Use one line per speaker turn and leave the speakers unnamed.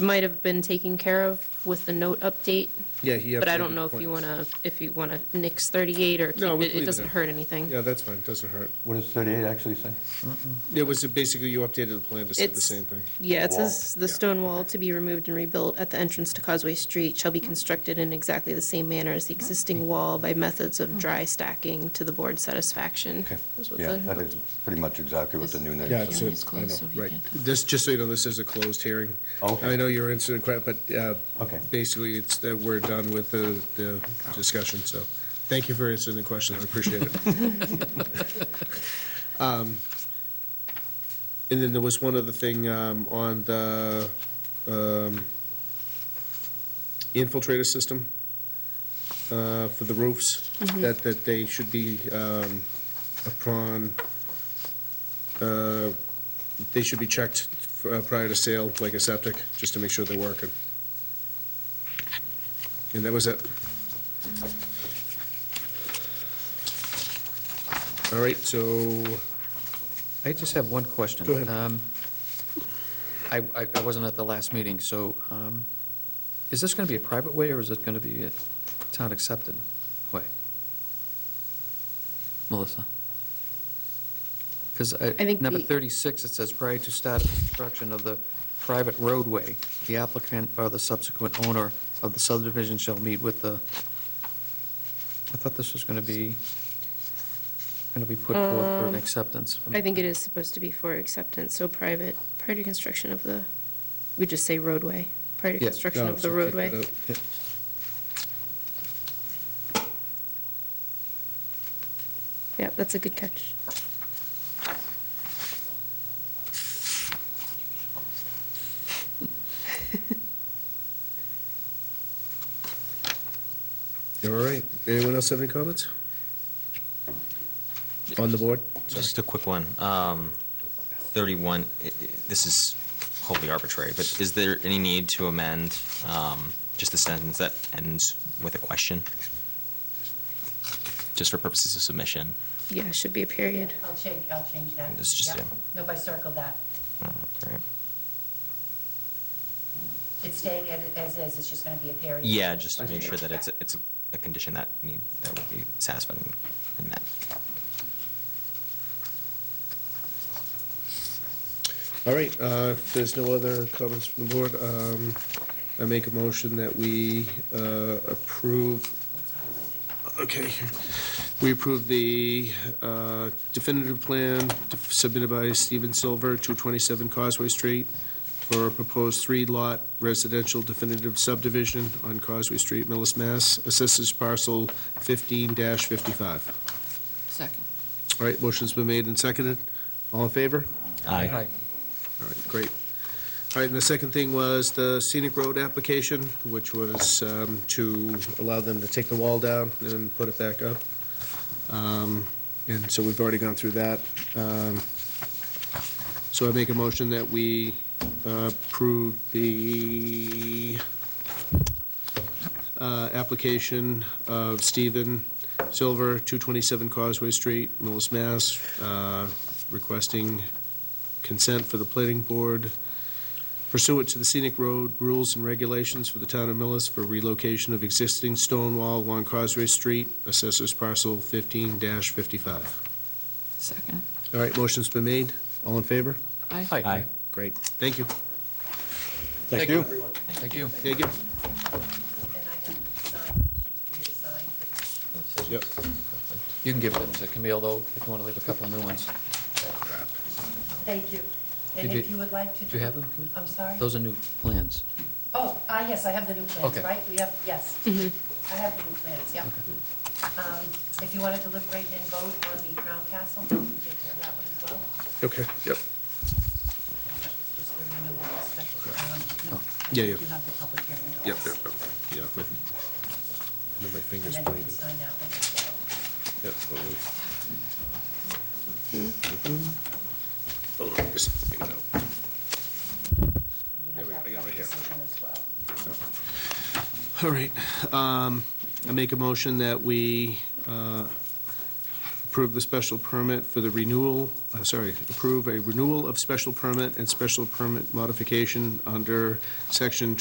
might have been taken care of with the note update,
Yeah, he updated.
but I don't know if you want
points.
to, if you want to nix 38 or keep
No, we
it,
can leave
it
it
doesn't
in.
hurt anything.
Yeah, that's fine, doesn't hurt.
What does 38 actually say?
It was basically, you updated the plan to say the
It's-
same thing.
Yeah, it
Wall.
says the
Yeah.
stone wall to be removed and rebuilt at the entrance to Causeway Street shall be constructed in exactly the same manner as the existing wall by methods of dry stacking to the board's satisfaction. is what
Yeah,
the-
that is pretty much exactly what the new name
Yeah,
is.
it's,
Hearing is
I
closed, so
know,
he
right.
can't-
This, just so you know, this is a closed hearing.
Oh, Okay.
I know you're interested, in que- but uh,
Okay.
basically, it's that we're done with the, the discussion, so thank you for answering the question, I appreciate it. Um, And then there was one other thing um, on the um, infiltrator system uh, for the roofs, that, that they should be um, upon, uh, they should be checked uh, prior to sale, like a septic, just to make sure they're working. And that was it. All right, so
I just have one question.
Go ahead.
Um, I, I I wasn't at the last meeting, so um, is this going to be a private way, or is it going to be a town-accepted way? Melissa? Because
I think
number
we-
36, it says, prior to start of construction of the private roadway, the applicant or the subsequent owner of the subdivision shall meet with the, I thought this was going to be, going to be put forth for an acceptance. from-
Um, I think it is supposed to be for acceptance, so private, prior to construction of the, we just say roadway, prior to
Yeah.
construction
No,
of
so
the
take
roadway.
that out.
Yeah, that's a good catch.
All right. Anyone else have any comments? On the board? Sorry.
Just a quick one. Um, 31, i- i- this is wholly arbitrary, but is there any need to amend um, just the sentence that ends with a question? Just for purposes of submission?
Yeah, should be a period.
I'll change, I'll change that.
It's just,
Yep.
yeah.
Nope, I circled that.
Uh, right.
It's staying as- as is, it's just going to be a period.
Yeah, just to make
Question.
sure that it's,
Yeah.
it's a condition that need, that would be satisfied and met.
All right, uh, if there's no other comments from the board, um, I make a motion that we uh, approve,
It's highlighted.
okay, we approve the uh, definitive plan submitted by Stephen Silver, 227 Causeway Street, for a proposed three-lot residential definitive subdivision on Causeway Street, Millis, Mass., assesses parcel 15-55.
Second.
All right, motion's been made and seconded. All in favor?
Aye.
Aye.
All right, great. All right, and the second thing was the scenic road application, which was um, to allow them to take the wall down and put it back up. Um, And so we've already gone through that. Um, So I make a motion that we uh, approve the uh, application of Stephen Silver, 227 Causeway Street, Millis, Mass, uh, requesting consent for the planning board pursuant to the scenic road rules and regulations for the town of Millis for relocation of existing stone wall along Causeway Street, assessors parcel fifteen fifty-five.
Second.
All right, motion's been made. All in favor?
Aye.
Aye.
Great. Thank you.
Thank you.
Thank you.
Thank you.
And I have to sign, sheet for you to sign.
Yep.
You can give them to Camille, though, if you want to leave a couple of new ones.
Thank you. And
Did you-
if you would like to.
do you have them, Camille?
I'm sorry?
Those are new plans.
Oh, ah, yes, I have the new plans,
Okay.
right? We have, yes. I have the new plans, yep. Um, If you want to deliberate and vote on the Crown Castle, you can take care of that one as well.
Okay, yep.
That was Just the renewal of the special, um, no,
Yeah, yeah.
You have the public hearing. notice.
Yep, yep, yep. Yeah. my- I know my
And
fingers
then you
bleeding.
can sign that one as well.
Yep. totally. Mm-hmm. Hold on, just take it out.
And you have
There we go.
that
I got it right here.
decision as well.
All right, um, I make a motion that we uh, appro- approve the special permit for the renewal, uh, sorry, approve a renewal of special permit and special permit modification under section